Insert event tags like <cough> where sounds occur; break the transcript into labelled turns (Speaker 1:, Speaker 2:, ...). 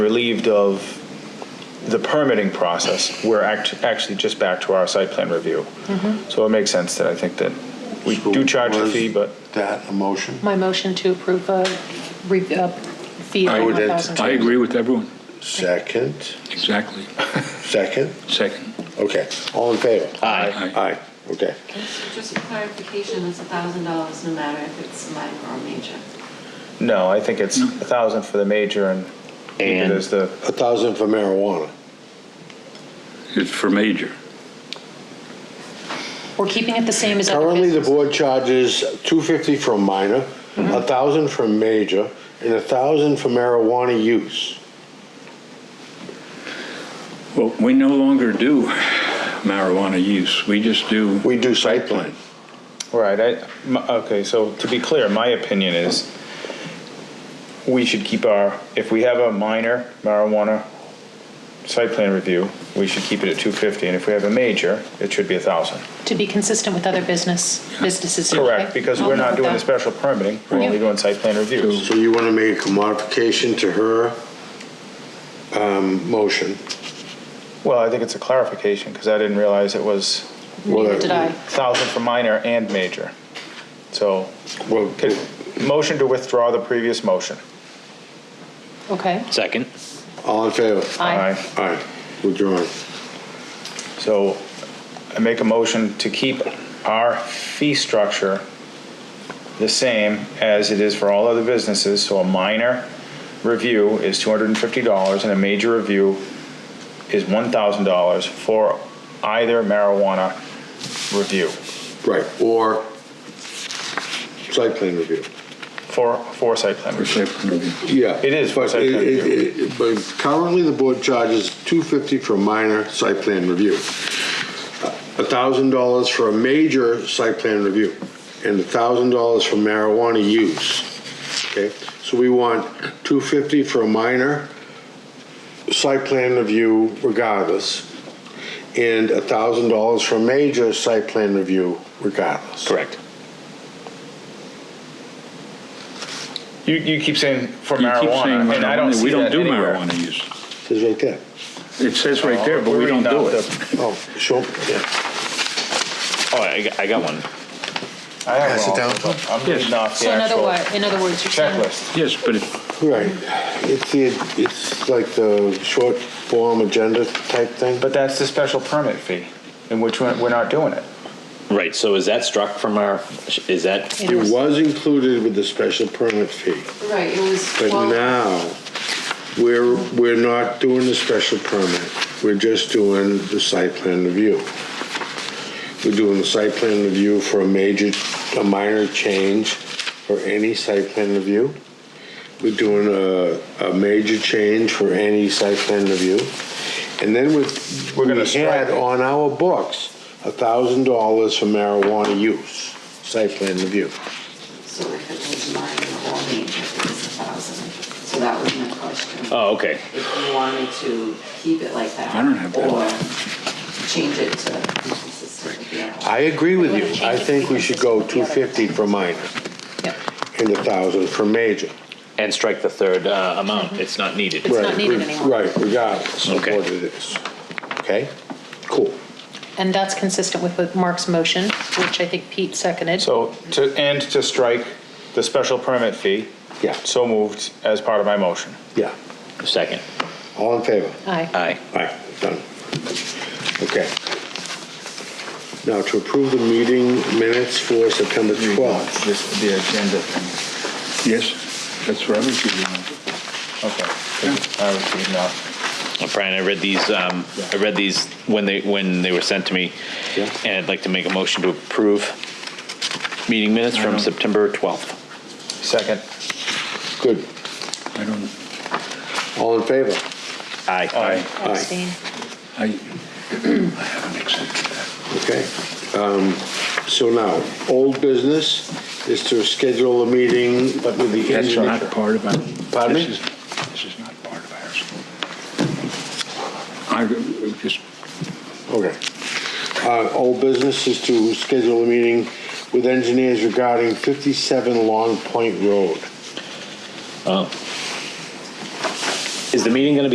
Speaker 1: relieved of the permitting process, we're act- actually just back to our site plan review.
Speaker 2: Mm-hmm.
Speaker 1: So it makes sense that I think that we do charge a
Speaker 3: Was
Speaker 1: fee, but
Speaker 3: That a motion?
Speaker 2: My motion to approve a re- a fee of
Speaker 3: I would
Speaker 2: $1,000.
Speaker 3: entertain-
Speaker 4: I agree with everyone,
Speaker 3: Second,
Speaker 4: exactly.
Speaker 3: second,
Speaker 4: Second.
Speaker 3: okay, all in favor?
Speaker 4: Aye.
Speaker 3: Aye, okay.
Speaker 5: Just a clarification, it's a thousand dollars no matter if it's minor or major.
Speaker 1: no, I think it's a thousand for the major and
Speaker 6: And-
Speaker 1: there's the,
Speaker 3: A thousand for marijuana.
Speaker 4: It's for major.
Speaker 2: We're keeping it the same as other
Speaker 3: Currently, the
Speaker 2: business. Mm-hmm.
Speaker 3: board charges two fifty for minor, a thousand for major, and a thousand for marijuana use.
Speaker 4: Well, we no longer do marijuana use, we just do.
Speaker 3: We do site plan.
Speaker 1: right, I, m- okay, so to be clear, my opinion is we should keep our, if we have a minor marijuana site plan review, we should keep it at 250, and if we have a major, it should be a thousand.
Speaker 2: To be consistent with other business, businesses.
Speaker 1: Correct,
Speaker 2: okay?
Speaker 1: because
Speaker 2: I'll
Speaker 1: we're not
Speaker 2: note
Speaker 1: doing the
Speaker 2: that.
Speaker 1: special permitting, we're only
Speaker 2: Yeah.
Speaker 1: doing site plan reviews.
Speaker 3: So you want to make a modification to her um, motion?
Speaker 1: Well, I think it's a clarification, because I didn't realize it was
Speaker 2: Neither did I.
Speaker 1: 1,000 for minor and major. So,
Speaker 3: Well,
Speaker 1: could- motion to withdraw the previous motion.
Speaker 2: Okay.
Speaker 6: Second.
Speaker 3: all in favor?
Speaker 2: Aye.
Speaker 1: Aye.
Speaker 3: Aye, withdrawn.
Speaker 1: So, I make a motion to keep our fee structure the same as it is for all other businesses, so a minor review is $250, and a major review is $1,000 for either marijuana review,
Speaker 3: Right, or site plan review.
Speaker 1: for, for site plan
Speaker 4: For
Speaker 1: review.
Speaker 4: site plan review.
Speaker 3: Yeah.
Speaker 1: It is for
Speaker 3: But
Speaker 1: site plan
Speaker 3: it- it-
Speaker 1: review.
Speaker 3: it- But currently, the board charges $250 for a minor site plan review, $1,000 for a major site plan review, and $1,000 for marijuana use. Okay, so we want 250 for a minor site plan review regardless, and $1,000 for a major site plan review regardless.
Speaker 6: Correct.
Speaker 1: You, you keep saying for
Speaker 4: You keep saying
Speaker 1: marijuana, and I don't
Speaker 4: marijuana,
Speaker 1: see
Speaker 4: we don't
Speaker 1: that
Speaker 4: do
Speaker 1: anywhere.
Speaker 4: marijuana use.
Speaker 3: It's right there.
Speaker 4: It says right there, but
Speaker 1: We're
Speaker 4: we don't
Speaker 1: reading
Speaker 4: do
Speaker 1: off
Speaker 4: it.
Speaker 3: Oh, sure, yeah.
Speaker 6: Oh, I, got- I got one.
Speaker 1: the- I have
Speaker 3: Pass it
Speaker 1: one
Speaker 3: down.
Speaker 1: also, but I'm
Speaker 4: Yes.
Speaker 1: reading off the
Speaker 2: So in other
Speaker 1: actual
Speaker 2: words, in other words, you're saying.
Speaker 1: checklist.
Speaker 4: Yes, but it-
Speaker 3: Right, it's the, it's like the short form agenda type thing, but
Speaker 1: But that's the special permit fee, in which we're we're not doing it.
Speaker 6: Right, so is that struck from our, is that,
Speaker 2: It
Speaker 3: it
Speaker 2: is.
Speaker 3: was included with the special permit fee.
Speaker 5: Right, it was
Speaker 3: But
Speaker 5: twelve,
Speaker 3: now, we're, we're not doing the special permit, we're just doing the site plan review. We're doing the site plan review for a major, a minor change for any site plan review. We're doing a, a major change for any site plan review. And then with,
Speaker 1: We're
Speaker 3: we
Speaker 1: gonna strike
Speaker 3: had
Speaker 1: it.
Speaker 3: on our books, a thousand dollars for marijuana use, site plan review.
Speaker 5: so if it was minor or major, it was a thousand. So that was my question.
Speaker 6: oh, okay.
Speaker 5: If you wanted to keep it like that.
Speaker 4: I don't have that.
Speaker 5: Or change it to be consistent with the other.
Speaker 3: I agree with you.
Speaker 2: wanna change
Speaker 3: I
Speaker 2: it to
Speaker 3: think
Speaker 2: be
Speaker 3: we should go
Speaker 2: consistent with the
Speaker 3: 250
Speaker 2: other.
Speaker 3: for minor
Speaker 2: Yep.
Speaker 3: and 1,000 for major.
Speaker 6: And strike the third uh, amount, it's not needed.
Speaker 2: It's not
Speaker 3: Right,
Speaker 2: needed
Speaker 3: re-
Speaker 2: anymore.
Speaker 3: Right, regardless of what
Speaker 6: Okay.
Speaker 3: it is. Okay? Cool.
Speaker 2: And that's consistent with- with Mark's motion, which I think Pete seconded.
Speaker 1: So, to, and to strike the special permit fee.
Speaker 3: Yeah.
Speaker 1: So moved as part of my motion.
Speaker 3: Yeah.
Speaker 6: Second.
Speaker 3: All in favor?
Speaker 2: Aye.
Speaker 6: Aye.
Speaker 3: Aye, done. Okay. Now, to approve the meeting minutes for September 12th.
Speaker 1: This, the agenda thing.
Speaker 4: yes, that's what I was reading off.
Speaker 1: Okay. I was reading off.
Speaker 6: Uh, Brian, I read these, um, I read these when they, when they were sent to me.
Speaker 3: Yeah.
Speaker 6: And I'd like to make a motion to approve meeting minutes from September 12th.
Speaker 1: Second.
Speaker 3: Good.
Speaker 4: I don't,
Speaker 3: All in favor?
Speaker 6: Aye.
Speaker 1: Aye.
Speaker 2: Abstain.
Speaker 4: I, <clears throat> I haven't accepted that.
Speaker 3: Okay. Um, So now, old business is to schedule a meeting with the
Speaker 4: That's
Speaker 3: engineer.
Speaker 4: not part of our.
Speaker 3: Pardon me?
Speaker 4: This is- this is not part of ours. I just,
Speaker 3: Okay. Uh, Old business is to schedule a meeting with engineers regarding 57 Long Point Road.
Speaker 6: Oh, Is the meeting going to be?